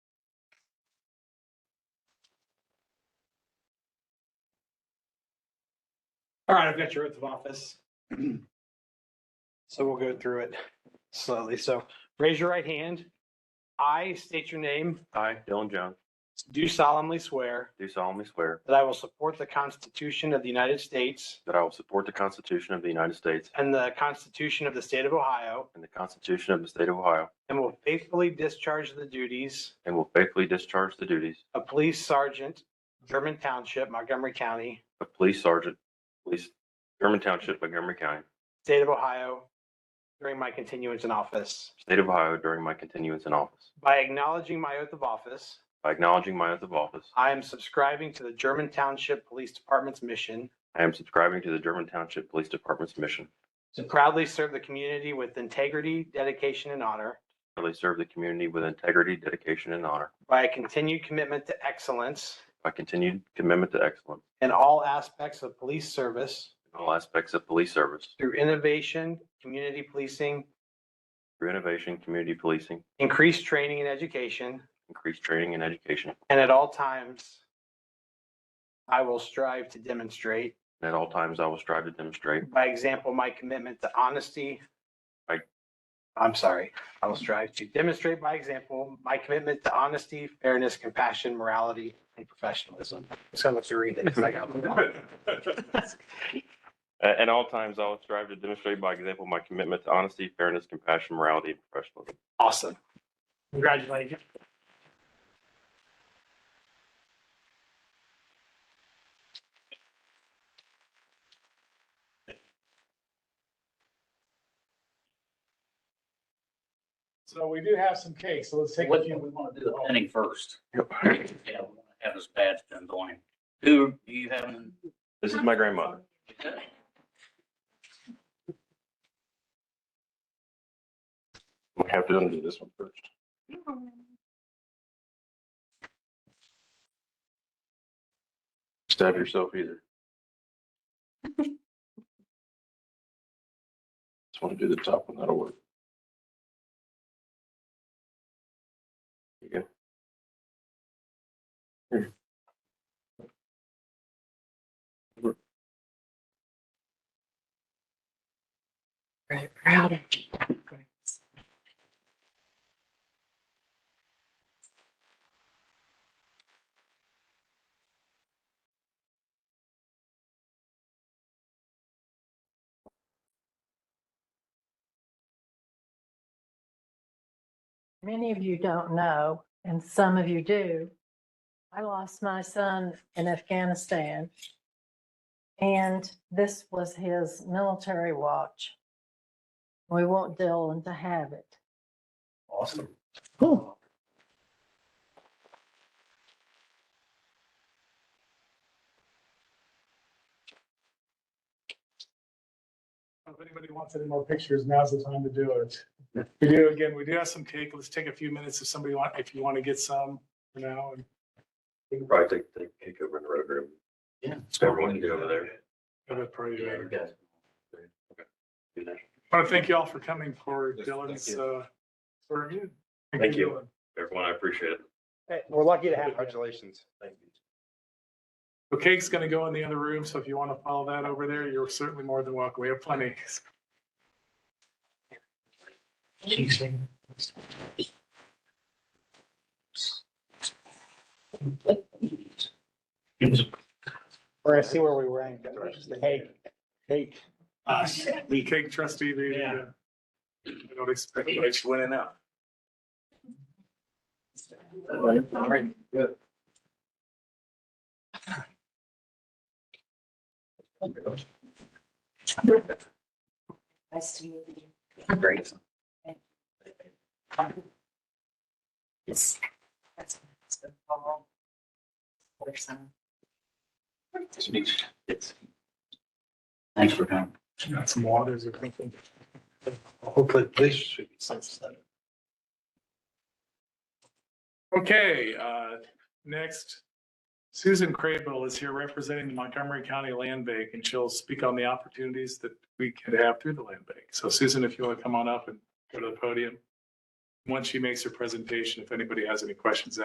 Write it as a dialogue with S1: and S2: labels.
S1: All right, I've got your oath of office. So we'll go through it slowly. So raise your right hand. I state your name,
S2: I, Dylan Jones,
S1: do solemnly swear
S2: do solemnly swear
S1: that I will support the Constitution of the United States
S2: that I will support the Constitution of the United States
S1: and the Constitution of the State of Ohio
S2: and the Constitution of the State of Ohio,
S1: and will faithfully discharge the duties
S2: and will faithfully discharge the duties
S1: of Police Sergeant, German Township, Montgomery County,
S2: of Police Sergeant, Police, German Township, Montgomery County,
S1: State of Ohio during my continuance in office.
S2: State of Ohio during my continuance in office.
S1: By acknowledging my oath of office,
S2: By acknowledging my oath of office,
S1: I am subscribing to the German Township Police Department's mission
S2: I am subscribing to the German Township Police Department's mission
S1: to proudly serve the community with integrity, dedication, and honor
S2: to really serve the community with integrity, dedication, and honor.
S1: by a continued commitment to excellence
S2: My continued commitment to excellence
S1: in all aspects of police service
S2: in all aspects of police service
S1: through innovation, community policing,
S2: through innovation, community policing,
S1: increased training and education,
S2: increased training and education,
S1: and at all times I will strive to demonstrate
S2: and at all times I will strive to demonstrate
S1: by example my commitment to honesty.
S2: Right.
S1: I'm sorry, I will strive to demonstrate by example my commitment to honesty, fairness, compassion, morality, and professionalism. So much to read it. 'cause I got-
S2: Uh, At, at all times, I will strive to demonstrate by example my commitment to honesty, fairness, compassion, morality, and professionalism.
S1: Awesome. Congratulations.
S3: So we do have some cakes, so let's take a
S4: What do
S3: few.
S4: we want to do the pinning first? Yeah, we want to Have this badge done going. Who do you have? in-
S2: This is my grandmother. We have to undo this one first. Stab yourself either. Just want to do the top one, that'll work. There you go. Here. We're-
S5: Really proud of you. Many of you don't know, and some of you do. I lost my son in Afghanistan. And this was his military watch. We want Dylan to have it.
S4: Awesome.
S3: If anybody wants any more pictures, now's the time to do it. We do, again, we do have some cake. Let's take a few minutes if somebody want, if you want to get some for now. and
S2: You can probably take, take, take over in the road room.
S4: Yeah.
S2: Everyone can get over there.
S3: have it for you later.
S2: Do that.
S3: I want to thank you all for coming for
S2: Yes,
S3: Dylan's,
S2: thank
S3: uh, for review.
S2: Thank you. Everyone, I appreciate it.
S1: We're lucky to have you.
S2: Congratulations. Thank you.
S3: The cake's going to go in the other room, so if you want to follow that over there, you're certainly more than welcome. We have plenty.
S1: We're gonna see where we rank. Hey, hey.
S3: Uh, The cake trustee, the,
S1: Yeah.
S3: I don't expect, I just went in out.
S5: Nice to meet you.
S4: Great.
S5: Yes. That's- that's been a long- or some-
S4: Thanks for coming.
S3: Got some waters or something.
S4: Hopefully, this should be something.
S3: Okay, uh, next, Susan Crable is here representing the Montgomery County Land Bank, and she'll speak on the opportunities that we could have through the land bank. So Susan, if you want to come on up and go to the podium. Once she makes her presentation, if anybody has any questions